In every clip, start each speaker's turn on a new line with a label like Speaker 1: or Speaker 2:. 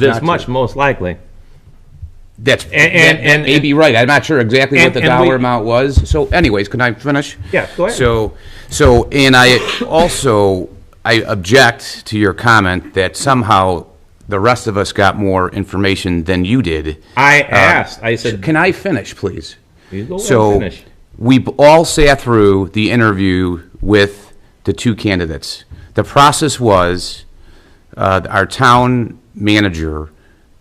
Speaker 1: this
Speaker 2: Not
Speaker 1: much,
Speaker 2: to.
Speaker 1: most likely.
Speaker 2: That's, and,
Speaker 1: and-
Speaker 2: that, that
Speaker 1: and-
Speaker 2: may be right. I'm not sure exactly
Speaker 1: And-
Speaker 2: what the
Speaker 1: and
Speaker 2: dollar
Speaker 1: we-
Speaker 2: amount was. So anyways, can I finish?
Speaker 1: Yeah, go ahead.
Speaker 2: So, so, and I also, I object to your comment that somehow the rest of us got more information than you did.
Speaker 1: I
Speaker 2: Uh,
Speaker 1: asked, I said,
Speaker 2: Can I finish, please?
Speaker 1: Mm-hmm. You go ahead and
Speaker 2: So,
Speaker 1: finish.
Speaker 2: we b- all sat through the interview with the two candidates. The process was, uh, our town manager,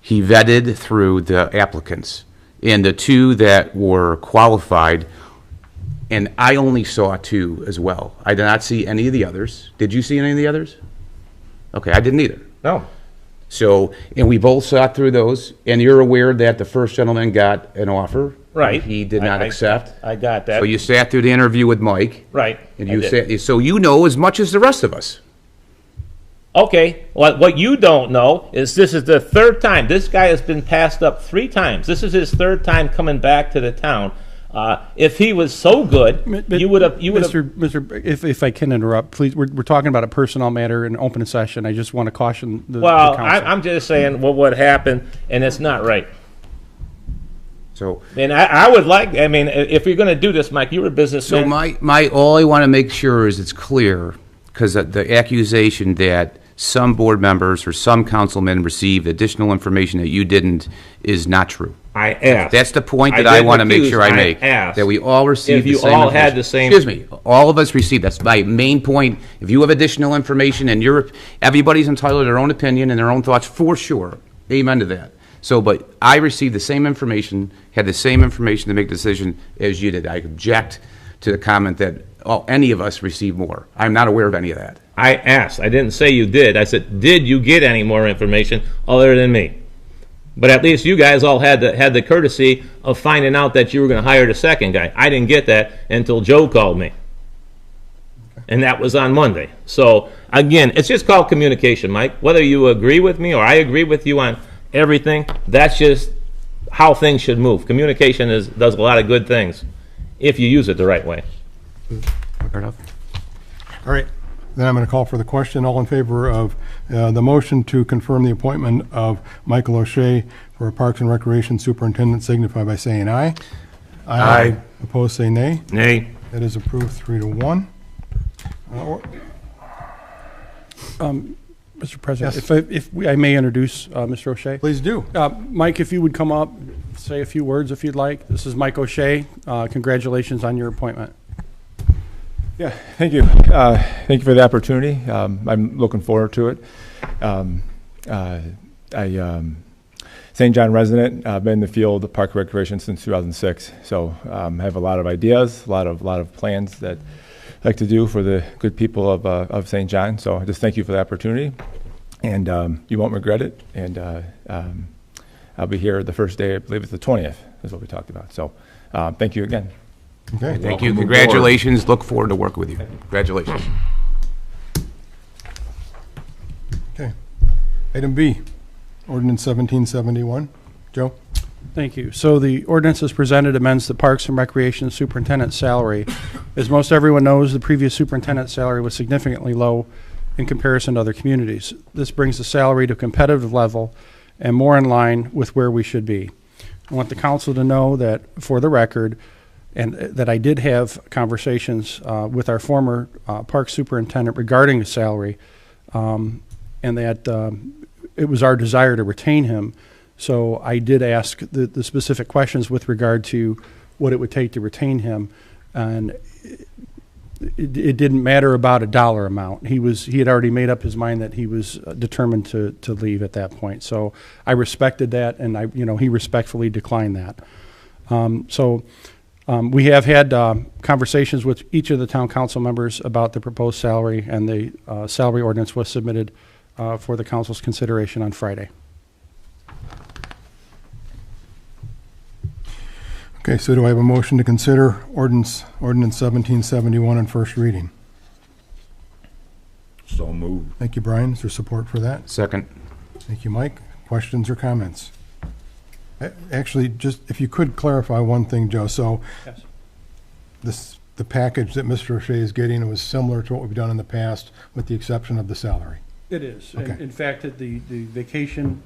Speaker 2: he vetted through the applicants. And the two that were qualified, and I only saw two as well. I did not see any of the others. Did you see any of the others? Okay, I didn't either.
Speaker 1: no.
Speaker 2: So, and we both sat through those, and you're aware that the first gentleman got an offer.
Speaker 3: Right.
Speaker 2: He did not
Speaker 3: I- I-
Speaker 2: accept.
Speaker 3: I got that.
Speaker 2: So you sat through the interview with Mike.
Speaker 3: Right,
Speaker 2: And
Speaker 3: I
Speaker 2: you
Speaker 3: did.
Speaker 2: sat, so you know as much as the rest of us.
Speaker 3: Okay, what, what you don't know is this is the third time. This guy has been passed up three times. This is his third time coming back to the town. Uh, if he was so good,
Speaker 4: M- but-
Speaker 3: you would have. You would have.
Speaker 4: Mr. Mr. If, if I can interrupt, please, we're, we're talking about a personnel matter in open session. I just want to caution the, the
Speaker 3: Well,
Speaker 4: council.
Speaker 3: I, I'm just saying what would happen, and it's not right.
Speaker 2: So,
Speaker 3: And I, I would like. I mean, i- if you're going to do this, Mike, you're a businessman.
Speaker 2: so my, my, all I want to make sure is it's clear, because the accusation that some board members or some councilmen received additional information that you didn't is not true.
Speaker 1: I asked.
Speaker 2: That's the point
Speaker 1: I
Speaker 2: that I
Speaker 1: didn't
Speaker 2: want to make
Speaker 1: accuse,
Speaker 2: sure I
Speaker 1: I
Speaker 2: make.
Speaker 1: asked
Speaker 2: That we all received
Speaker 1: if
Speaker 2: the
Speaker 1: you
Speaker 2: same.
Speaker 1: all had
Speaker 2: information.
Speaker 1: the same-
Speaker 2: Excuse me, all of us received, that's my main point. If you have additional information and you're, everybody's entitled to their own opinion and their own thoughts, for sure. Amen to that. So, but I received the same information, had the same information to make decision as you did. I object to the comment that, oh, any of us received more. I'm not aware of any of that.
Speaker 1: I asked. I didn't say you did. I said, did you get any more information other than me? But at least you guys all had the had the courtesy of finding out that you were going to hire the second guy. I didn't get that until Joe called me, and that was on Monday. So again, it's just called communication, Mike. Whether you agree with me or I agree with you on everything, that's just how things should move. Communication is does a lot of good things if you use it the right way.
Speaker 2: Fair enough?
Speaker 5: All right, then I'm going to call for the question. All in favor of uh, the motion to confirm the appointment of Michael O'Shea for Parks and Recreation Superintendent signify by saying aye.
Speaker 2: Aye.
Speaker 5: Opposed, say nay.
Speaker 1: Nay.
Speaker 5: That is approved, three to one. Uh, or-
Speaker 4: Mr. President,
Speaker 5: Yes.
Speaker 4: if, I, if we, I may introduce uh, Mr. O'Shea.
Speaker 5: Please do.
Speaker 4: Uh, Mike, if you would come up, say a few words if you'd like. This is Mike O'Shea. Uh, congratulations on your appointment.
Speaker 6: Yeah, thank you. Uh, Thank you for the opportunity. Um, I'm looking forward to it. Um, uh, I, um, St. John resident, I've been in the field of park recreation since 2006, so um, I have a lot of ideas, a lot of, lot of plans that I'd like to do for the good people of, uh, of St. John, so I just thank you for the opportunity, and um, you won't regret it, and uh, um, I'll be here the first day, I believe it's the 20th, is what we talked about, so uh, thank you again.
Speaker 5: Okay.
Speaker 2: Thank you. Congratulations. Look forward to working with you. Congratulations.
Speaker 5: Okay. Item B, ordinance 1771. Joe?
Speaker 4: Thank you. So the ordinance as presented amends the Parks and Recreation Superintendent's salary. As most everyone knows, the previous superintendent's salary was significantly low in comparison to other communities. This brings the salary to a competitive level and more in line with where we should be. I want the council to know that, for the record, and uh, that I did have conversations uh, with our former uh, park superintendent regarding his salary, um, and that um, it was our desire to retain him. So I did ask the, the specific questions with regard to what it would take to retain him, and it, it didn't matter about a dollar amount. He was he had already made up his mind that he was uh, determined to to leave at that point. So I respected that, and I you know he respectfully declined that. Um, so um, we have had um, conversations with each of the town council members about the proposed salary, and the uh, salary ordinance was submitted uh, for the council's consideration on Friday.
Speaker 5: Okay, so do I have a motion to consider ordinance, ordinance 1771 on first reading?
Speaker 7: So moved.
Speaker 5: Thank you, Brian. Is there support for that?
Speaker 2: Second.
Speaker 5: Thank you, Mike. Questions or comments? A- Actually, just if you could clarify one thing, Joe. So
Speaker 4: Yes.
Speaker 5: this, the package that Mr. O'Shea is getting was similar to what we've done in the past, with the exception of the salary.
Speaker 4: It is.
Speaker 5: In- Okay.
Speaker 4: fact, the, the vacation